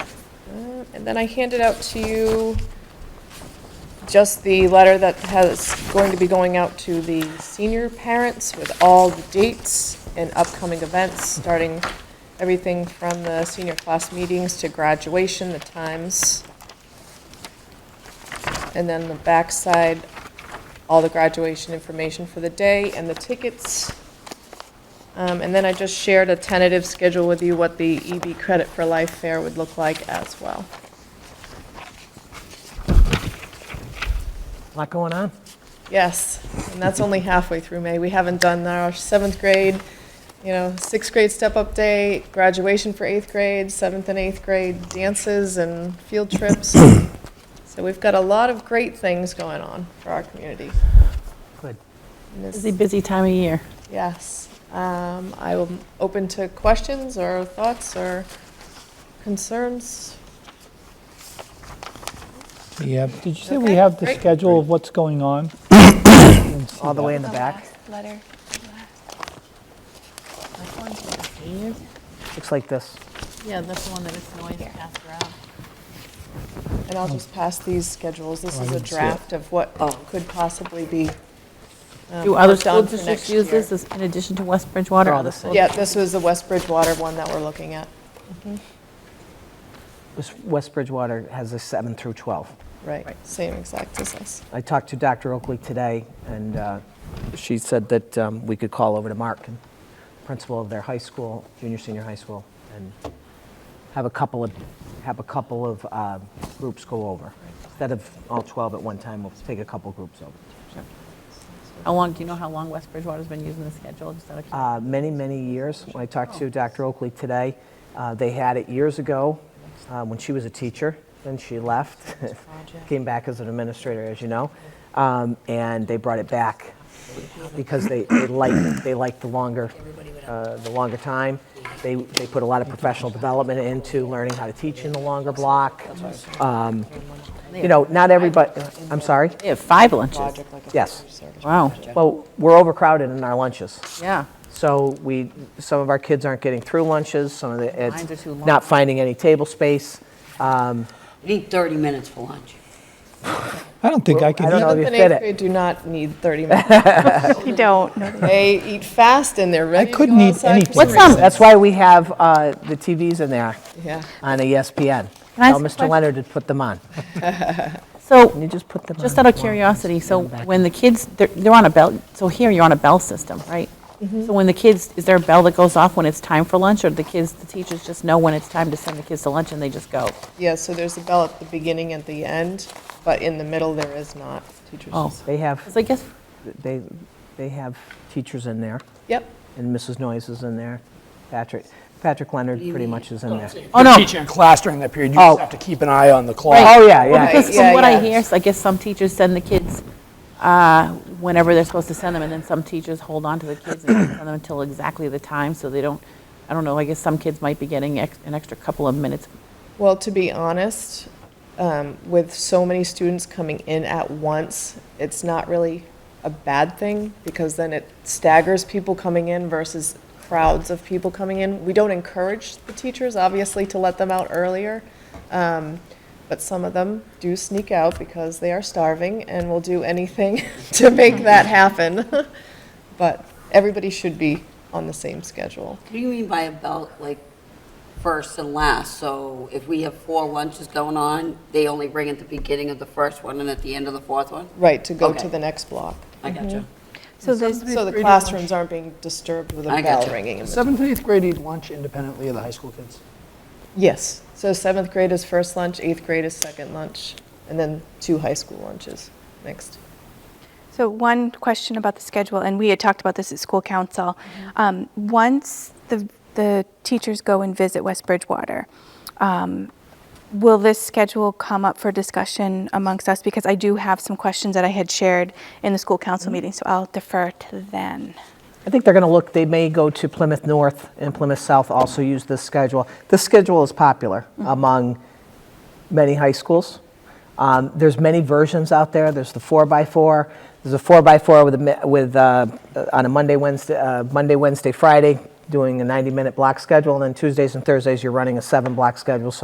Uh, And then I handed out to you just the letter that has, going to be going out to the senior parents with all the dates and upcoming events, starting everything from the senior class meetings to graduation, the times. And then the backside, all the graduation information for the day and the tickets. Um, And then I just shared a tentative schedule with you, what the EB Credit for Life Fair would look like as well. Lot going on? Yes, and that's only halfway through May. We haven't done our seventh grade, you know, sixth grade step-up day, graduation for eighth grade, seventh and eighth grade dances and field trips. So we've got a lot of great things going on for our community. Good. And this- Busy, busy time of year. Yes. Um, I'm open to questions or thoughts or concerns. We have, did you say we Okay, have the great. schedule of what's going on? All the way in the back? Letter. Looks like this. Yeah, that's the one that is noise passed around. And I'll just pass these schedules. This Oh, I is a didn't see it. draft of what could possibly be um, Oh. Do other worked school on for next districts use year. this as- in addition to West Bridgewater? They're all Other the school Yeah, this was the West Bridgewater one that we're looking at. This- West Bridgewater has a 7 through 12. Right, same exact as us. I talked to Dr. Oakley today, and uh, she said that um, we could call over to Mark, principal of their high school, junior, senior high school, and have a couple of, have a couple of uh, groups go over. Instead of all 12 at one time, we'll take a couple groups over. How long, do you know how long West Bridgewater's been using the schedule? Just out of uh, curiosity. many, many years. When I talked to Dr. Oakley today, uh, they had it years ago uh, when she was a teacher. Then she left, came back as an administrator, as you know, um, and they brought it back because they, they liked they liked the longer uh, the longer time. They, they put a lot of professional development into learning how to teach in the longer block. Um, you know, not everybody. I'm sorry. They have five lunches. Yes. Wow, Well, we're overcrowded in our lunches. yeah. So we, some of our kids aren't getting through lunches, some of the, Lines are it's too long. not finding any table space. We need 30 minutes for lunch. I don't think I I can don't eat. know if you Seventh and fit eighth it. grade do not need 30 minutes. You don't. They eat fast and they're ready to go couldn't eat outside for anything. some What's reason. That's why we have uh, the TVs in there Yeah, on E ESPN. Can I Tell ask a Mr. question? Leonard to put them on. Can So, you just put them on? just out of curiosity, so when the kids, they're- they're on a bell, so here you're on a bell system, right? So when the kids, is there a bell that goes off when it's time for lunch, or the kids, the teachers just know when it's time to send the kids to lunch and they just go? yeah, so there's a bell at the beginning and the end, but in the middle there is not. Teachers Oh. just, They have, Because I guess, they, they have teachers in there, yep, and Mrs. Noyes is in there. Patrick, Patrick Leonard pretty much is in there. oh, no. teaching a class during that period, you Oh. just have to keep an eye on the clock. Oh, yeah, yeah. Right. Because from what yeah. I hear, s- I guess some teachers send the kids uh, whenever they're supposed to send them, and then some teachers hold on to the kids and don't send them until exactly the time, so they don't, I don't know, I guess some kids might be getting ex- an extra couple of minutes. Well, to be honest, um, with so many students coming in at once, it's not really a bad thing because then it staggers people coming in versus crowds of people coming in. We don't encourage the teachers, obviously, to let them out earlier. Um, but some of them do sneak out because they are starving and will do anything to make that happen. but everybody should be on the same schedule. What do you mean by about, like, first and last? So if we have four lunches going on, they only bring at the beginning of the first one and at the end of the fourth one? Right, to go to Okay. the next block. I gotcha. So So the there's, classrooms aren't being disturbed with a I bell gotcha. ringing in the Seventh and eighth grade eat lunch independently of the high school kids. Yes, so seventh grade is first lunch, eighth grade is second lunch, and then two high school lunches next. so one question about the schedule, and we had talked about this at school council. Um, Once the, the teachers go and visit West Bridgewater, um, will this schedule come up for discussion amongst us? Because I do have some questions that I had shared in the school council meeting, so I'll defer to then. I think they're going to look, they may go to Plymouth North and Plymouth South also use this schedule. This schedule is popular among many high schools. Um, There's many versions out there. There's the four by four. There's a four by four with, a mi- with, uh, on a Monday, Wednesday, uh, Monday, Wednesday, Friday, doing a 90-minute block schedule. And then Tuesdays and Thursdays, you're running a seven-block schedule. So